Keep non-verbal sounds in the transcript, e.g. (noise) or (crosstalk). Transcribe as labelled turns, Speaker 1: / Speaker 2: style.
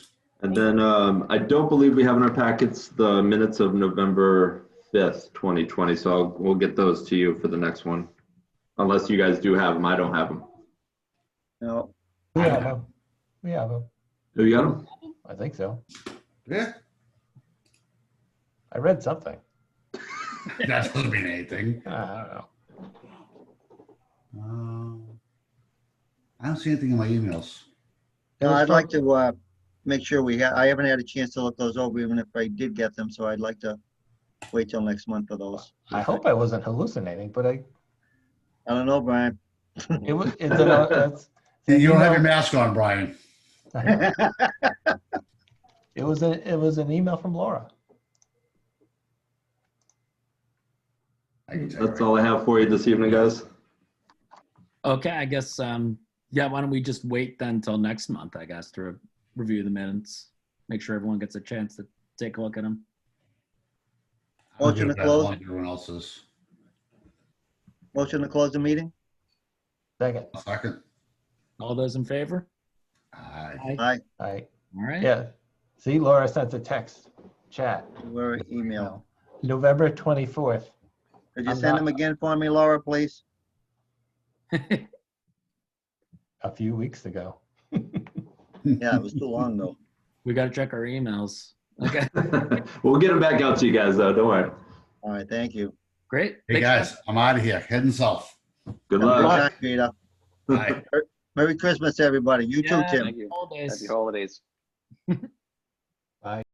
Speaker 1: And then um, I don't believe we have in our packets the minutes of November 5th, 2020, so I'll- we'll get those to you for the next one. Unless you guys do have them, I don't have them.
Speaker 2: No,
Speaker 3: We have them. We have them.
Speaker 1: Do you got them?
Speaker 3: I think so.
Speaker 4: Yeah,
Speaker 3: I read something.
Speaker 4: (laughs) that doesn't mean anything.
Speaker 3: Uh, I don't know.
Speaker 4: Um, I don't see anything in my emails.
Speaker 2: no, I'd like to, uh, make sure we, ha- I haven't had a chance to look those over, even if I did get them, so I'd like to wait till next month for those.
Speaker 3: I hope I wasn't hallucinating, but I
Speaker 2: I don't know, Brian.
Speaker 3: it was. (laughs) It's an, it's,
Speaker 4: You don't have your
Speaker 3: email-
Speaker 4: mask on, Brian.
Speaker 3: It was a. It was an email from Laura.
Speaker 4: I can tell you
Speaker 1: That's all I have for you this evening, guys. (laughs)
Speaker 5: Okay, I guess, um, yeah, why don't we just wait then till next month, I guess, to re- review the minutes? Make sure everyone gets a chance to take a look at them.
Speaker 4: I'm
Speaker 2: Motion to
Speaker 4: good at
Speaker 2: close.
Speaker 4: like Everyone else's.
Speaker 2: Motion to close the meeting?
Speaker 3: Second.
Speaker 4: Second.
Speaker 5: All those in favor?
Speaker 4: Aye.
Speaker 2: Aye,
Speaker 3: All right.
Speaker 5: All right,
Speaker 3: Yeah. See, Laura sent a text, chat,
Speaker 2: we're email.
Speaker 3: November twenty fourth.
Speaker 2: Could you
Speaker 3: I'm
Speaker 2: send
Speaker 3: not-
Speaker 2: them again for me, Laura, please?
Speaker 3: a few weeks ago.
Speaker 2: Yeah, it was too long, though.
Speaker 5: we gotta check our emails. Okay, (laughs)
Speaker 1: We'll get them back out to you guys, though, don't worry.
Speaker 2: All right, thank you.
Speaker 5: great.
Speaker 4: Hey,
Speaker 5: Thanks,
Speaker 4: guys, I'm out of here, heading south.
Speaker 1: Good
Speaker 2: Have a good
Speaker 1: luck.
Speaker 2: night, Peter.
Speaker 1: (laughs)
Speaker 4: Aye.
Speaker 2: Merry Christmas, everybody. You too,
Speaker 5: Yeah,
Speaker 2: Tim.
Speaker 5: Holidays.
Speaker 6: Happy holidays.